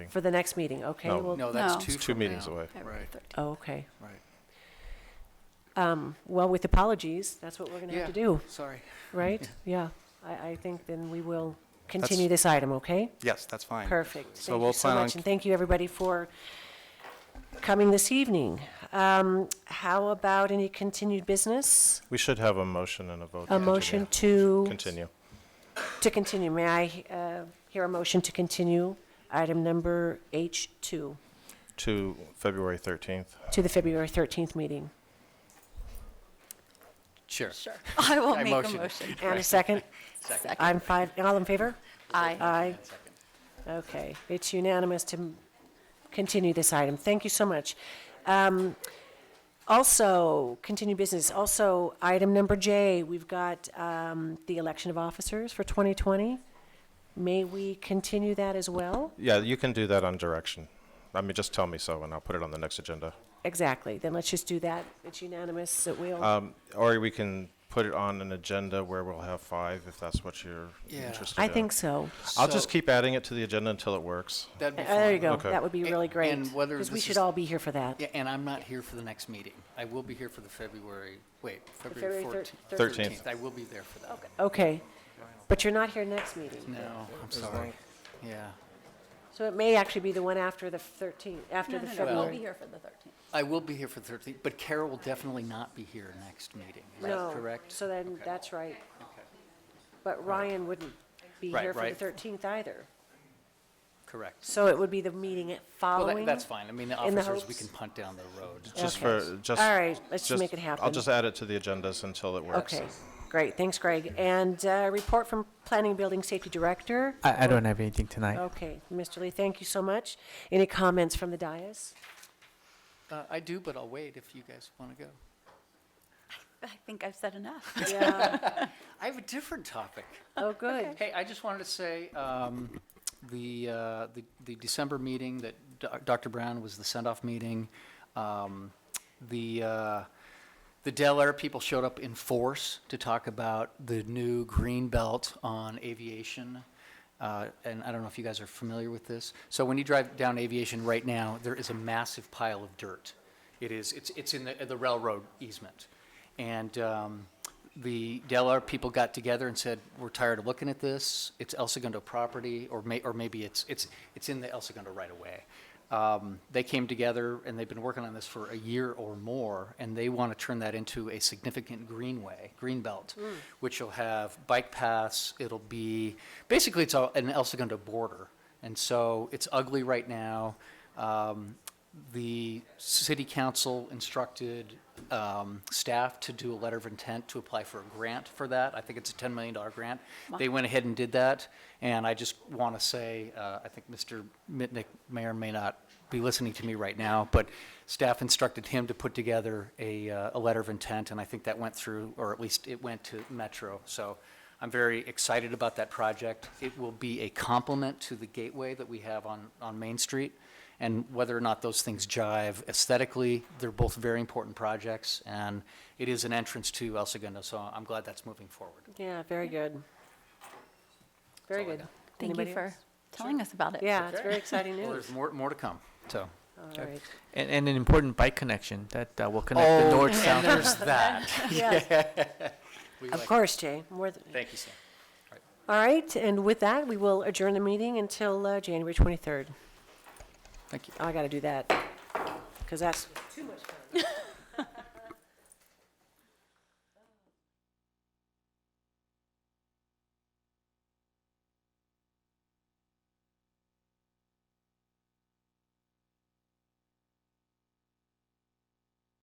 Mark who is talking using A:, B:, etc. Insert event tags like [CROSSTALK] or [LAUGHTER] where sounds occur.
A: For the next meeting, okay?
B: No.
A: well-
C: No, that's
D: No.
C: two
B: It's two
C: from
B: meetings
C: now.
B: away.
D: February
C: Right.
D: 13th.
A: Oh, okay.
C: Right.
A: Um, Well, with apologies, that's what we're going to have to
C: Yeah.
A: do,
C: Sorry. [LAUGHS]
A: right? Yeah, I, I think then we will continue this item, okay?
E: Yes, that's fine.
A: Perfect.
E: So
A: Thank you
E: we'll
A: so
E: plan on-
A: much, and thank you, everybody, for coming this evening. Um, How about any continued business?
B: We should have a motion and a vote.
A: A
B: to
A: motion
B: continue.
A: to,
B: Continue.
A: to continue. May I uh, hear a motion to continue item number H2
B: To February 13th.
A: to the February 13th meeting?
C: Sure.
D: Sure. I will
C: I
D: make a
C: motion.
D: motion.
A: And a second?
D: Second.
A: I'm five, all in favor?
D: Aye.
A: Aye. Okay, it's unanimous to m- continue this item. Thank you so much. Um, Also, continue business, also, item number J, we've got um, the election of officers for 2020. May we continue that as well?
B: Yeah, you can do that on direction. I mean, just tell me so, and I'll put it on the next agenda.
A: Exactly, then let's just do that. It's unanimous, it will,
B: Um, Or we can put it on an agenda where we'll have five, if that's what you're
C: Yeah.
B: interested in.
A: I think so.
B: I'll just
C: So-
B: keep adding it to the agenda until it works.
C: That'd be
A: Uh, There you
C: fine.
A: go,
B: Okay.
A: that would be
C: A-
A: really great,
C: and whether
A: because we
C: this
A: should
C: is-
A: all be here for that.
C: Yeah, and I'm not here for the next meeting. I will be here for the February, wait, February
A: February
C: fourteenth.
A: thir-
B: Thirteenth.
C: I will be there for that. one.
A: Okay, but you're not here next meeting?
C: No, I'm sorry. Yeah.
A: So it may actually be the one after the 13th, after
D: No,
A: the
D: no, no, we'll
A: February.
D: be here for the 13th.
C: I will be here for the thirteenth, but Carol will definitely not be here next meeting. Is that correct?
A: So then,
C: Okay.
A: that's right. But Ryan wouldn't be
C: Right,
A: here for the
C: right.
A: 13th either.
C: Correct.
A: So it would be the meeting at
C: Well,
A: following?
C: that- that's fine. I mean, the
A: in the
C: officers, we
A: hopes-
C: can punt down the road.
B: Just
A: Okay.
B: for, just.
A: All right, let's just make it happen.
B: I'll just add it to the agendas until it works.
A: Okay, great, thanks, Greg. And uh, report from Planning and Building Safety Director?
F: I, I don't have anything tonight.
A: Okay, Mr. Lee, thank you so much. Any comments from the
C: [LAUGHS]
A: dais?
C: Uh, I do, but I'll wait if you guys want to go.
D: I think I've said enough.
A: Yeah,
C: I have a different topic.
A: oh, good.
C: Hey, I just wanted to say, um, the, uh, the, the December meeting that Doc- Dr. Brown was the send-off meeting, um, the, uh, the Del Air people showed up in force to talk about the new green belt on aviation. Uh, and I don't know if you guys are familiar with this. So when you drive down aviation right now, there is a massive pile of dirt. It is, it's, it's in the, the railroad easement. And um, the Delar people got together and said, we're tired of looking at this. It's El Segundo property, or may, or maybe it's, it's, it's in the El Segundo right away. Um, they came together and they've been working on this for a year or more, and they want to turn that into a significant greenway, green belt, which will have bike paths. It'll be basically it's a, an El Segundo border, and so it's ugly right now. Um, the city council instructed um, staff to do a letter of intent to apply for a grant for that. I think it's a $10 million grant. They went ahead and did that, and I just want to say, uh, I think Mr. Mitnick may or may not be listening to me right now, but staff instructed him to put together a, uh, a letter of intent, and I think that went through, or at least it went to Metro. So I'm very excited about that project. It will be a complement to the gateway that we have on, on Main Street. And whether or not those things jive aesthetically, they're both very important projects, and it is an entrance to El Segundo, so I'm glad that's moving forward.
A: Yeah, very good. Very
C: all I
A: good.
C: got.
D: Thank you
A: Anybody
D: for
A: else?
D: telling us about it.
A: Yeah, it's very exciting
C: Well,
A: news.
C: there's more, more to come, so.
A: All right.
C: [LAUGHS]
F: And, and an important bike connection that uh, will connect the north south.
C: there's that.
A: Yeah,
C: We
A: of
C: like-
A: course, Jay, more than,
C: Thank you, Sam.
A: all right, and with that, we will adjourn the meeting until uh, January 23rd.
C: Thank you.
A: I got to do that, because that's. Too much